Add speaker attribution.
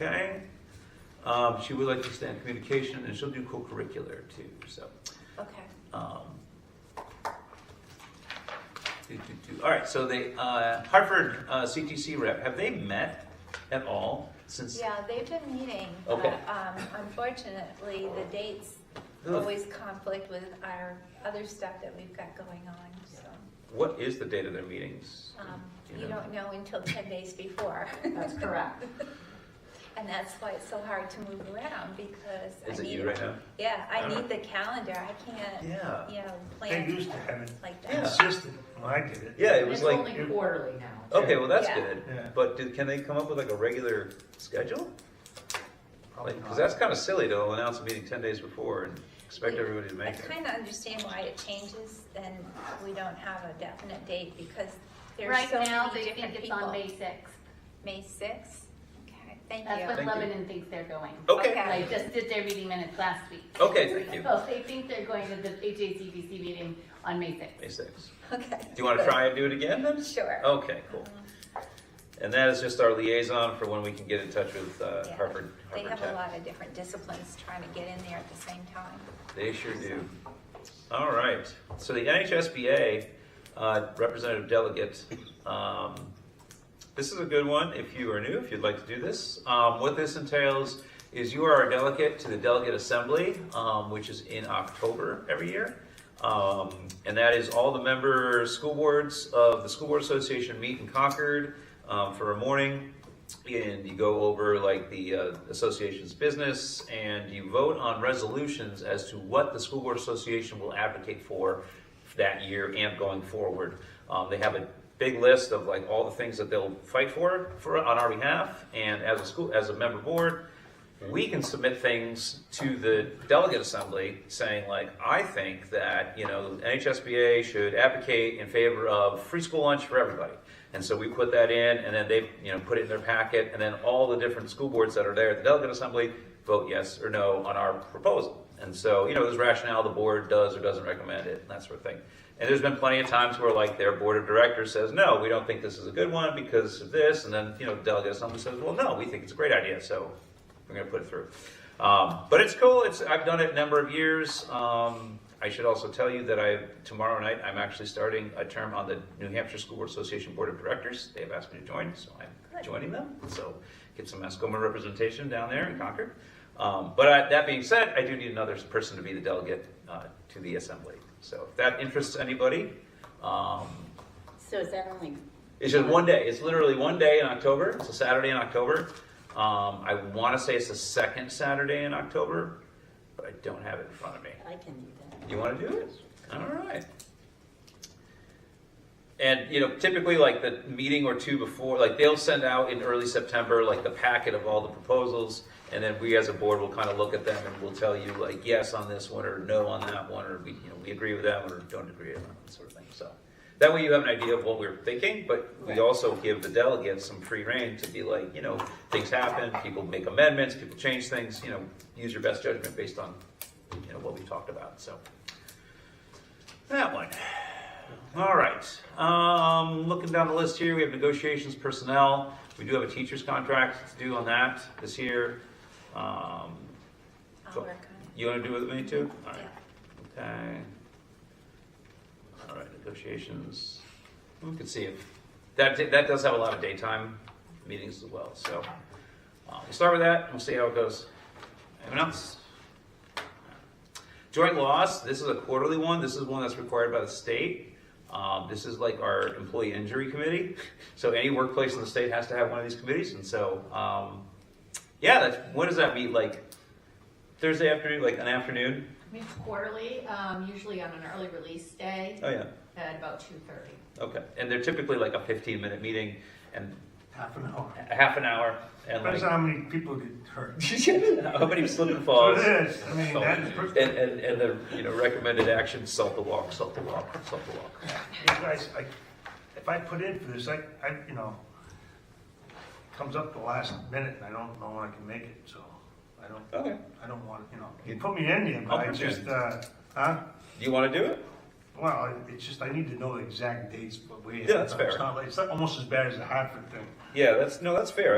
Speaker 1: Okay. Um, she would like to stay in communication and she'll do co-curricular too, so.
Speaker 2: Okay.
Speaker 1: um, do, do, do. All right, so they, uh, Hartford uh, CTC rep, have they met at all since?
Speaker 2: Yeah, they've been meeting.
Speaker 1: Okay.
Speaker 2: but, Um, unfortunately, the dates
Speaker 1: Ugh.
Speaker 2: always conflict with our other stuff that we've got going on, so.
Speaker 1: What is the date of their meetings?
Speaker 2: um,
Speaker 1: Do
Speaker 2: You
Speaker 1: know?
Speaker 2: don't know until ten days before.
Speaker 3: That's correct.
Speaker 2: And that's why it's so hard to move around because I need.
Speaker 1: Is it you right now?
Speaker 2: Yeah, I
Speaker 1: Uh-huh.
Speaker 2: need the calendar. I can't,
Speaker 1: Yeah.
Speaker 2: you know,
Speaker 4: They
Speaker 2: plan
Speaker 4: used to have it
Speaker 2: like that.
Speaker 4: consistent when I did it.
Speaker 1: Yeah, it
Speaker 3: And
Speaker 1: was
Speaker 3: It's
Speaker 1: like,
Speaker 3: only quarterly now.
Speaker 1: okay, well, that's
Speaker 2: Yeah.
Speaker 1: good.
Speaker 4: Yeah.
Speaker 1: But do, can they come up with like a regular schedule? Like, because that's kind of silly to announce a meeting ten days before and expect
Speaker 2: We-
Speaker 1: everybody to
Speaker 2: I
Speaker 1: make it.
Speaker 2: kind of understand why it changes and we don't have a definite date because there's
Speaker 5: Right
Speaker 2: so
Speaker 5: now,
Speaker 2: many
Speaker 5: they
Speaker 2: different
Speaker 5: think it's
Speaker 2: people.
Speaker 5: on May sixth.
Speaker 2: May sixth? Okay, thank
Speaker 5: That's
Speaker 2: you.
Speaker 5: what
Speaker 1: Thank you.
Speaker 5: Lebanon thinks they're going.
Speaker 1: Okay,
Speaker 2: Okay.
Speaker 5: They just did their meeting minutes last week.
Speaker 1: okay, thank you.
Speaker 5: So they think they're going to the HACBC meeting on May sixth.
Speaker 1: May sixth.
Speaker 2: Okay.
Speaker 1: Do you want to try and do it Oh, again then?
Speaker 2: Sure.
Speaker 1: Okay, cool. And that is just our liaison for when we can get in touch with uh,
Speaker 2: Yeah.
Speaker 1: Harvard,
Speaker 2: They
Speaker 1: Harvard
Speaker 2: have a
Speaker 1: Tech.
Speaker 2: lot of different disciplines trying to get in there at the same time.
Speaker 1: They sure do. All right, so the NHSBA uh, Representative Delegate, um, this is a good one if you are new, if you'd like to do this. Um, What this entails is you are a delegate to the Delegate Assembly, um, which is in October every year. Um, and that is all the member school boards of the School Board Association meet in Concord um, for a morning. And you go over like the uh, association's business and you vote on resolutions as to what the School Board Association will advocate for that year and going forward. Um, they have a big list of like all the things that they'll fight for, for on our behalf. And as a school, as a member board, we can submit things to the delegate assembly saying like, I think that, you know, NHSBA should advocate in favor of free school lunch for everybody. And so we put that in and then they, you know, put it in their packet and then all the different school boards that are there at the delegate assembly vote yes or no on our proposal. And so, you know, there's rationale the board does or doesn't recommend it, and that sort of thing. And there's been plenty of times where like their board of directors says, no, we don't think this is a good one because of this, and then, you know, delegate assembly says, well, no, we think it's a great idea, so we're gonna put it through. Um, but it's cool, it's, I've done it a number of years. Um, I should also tell you that I, tomorrow night, I'm actually starting a term on the New Hampshire School Board Association Board of Directors. They have asked me to join, so I'm
Speaker 2: Good.
Speaker 1: joining them, so get some Mascoma representation down there in Concord. Um, But I- that being said, I do need another person to be the delegate uh, to the assembly. So if that interests anybody, um,
Speaker 3: So is that only?
Speaker 1: it's just one day. It's literally one day in October. It's a Saturday in October. Um, I want to say it's the second Saturday in October, but I don't have it in front of me.
Speaker 3: I can do that.
Speaker 1: You want to do it? All right. And, you know, typically like the meeting or two before, like they'll send out in early September, like the packet of all the proposals. And then we as a board will kind of look at them and we'll tell you like, yes on this one or no on that one, or we, you know, we agree with that one or don't agree with that one, sort of thing. So that way you have an idea of what we're thinking, but we
Speaker 3: Right.
Speaker 1: also give the delegates some free reign to be like, you know, things happen, people make amendments, people change things, you know, use your best judgment based on, you know, what we've talked about, so. That one. All right. Um, looking down the list here, we have negotiations personnel. We do have a teacher's contract to do on that this year. Um,
Speaker 2: I'll
Speaker 1: Cool.
Speaker 2: work on
Speaker 1: you want to do it with me too? All
Speaker 2: it.
Speaker 1: right. Okay. All right, negotiations. We can see if, that, that does have a lot of daytime meetings as well, so. uh, We'll start with that, and we'll see how it goes. Anyone else? Joint loss, this is a quarterly one, this is one that's required by the state. Um, This is like our employee injury committee, so any workplace in the state has to have one of these committees, and so, um, yeah, that's, what does that mean, like Thursday afternoon, like an afternoon?
Speaker 6: It's quarterly, um, usually on an early release day
Speaker 1: Oh, yeah.
Speaker 6: at about two thirty.
Speaker 1: Okay, and they're typically like a fifteen minute meeting and
Speaker 4: Half an hour.
Speaker 1: a half an hour and
Speaker 4: Depends
Speaker 1: like
Speaker 4: how many people get hurt.
Speaker 1: how many slip and
Speaker 4: So
Speaker 1: falls.
Speaker 4: it is, I mean, that is,
Speaker 1: And,
Speaker 4: pretty-
Speaker 1: and, and the, you know, recommended action, salt the walk, salt the walk, salt the walk.
Speaker 4: you guys, I, if I put in for this, I, I, you know, comes up the last minute and I don't know when I can make it, so I don't,
Speaker 1: Okay.
Speaker 4: I don't want, you know, you put me in there,
Speaker 1: I'll
Speaker 4: but I
Speaker 1: put you
Speaker 4: just,
Speaker 1: in.
Speaker 4: uh, huh?
Speaker 1: Do you wanna do it?
Speaker 4: Well, it- it's just, I need to know the exact dates, but we.
Speaker 1: Yeah, that's fair.
Speaker 4: It's not, like- it's not almost as bad as the Hartford thing.
Speaker 1: Yeah, that's, no, that's fair.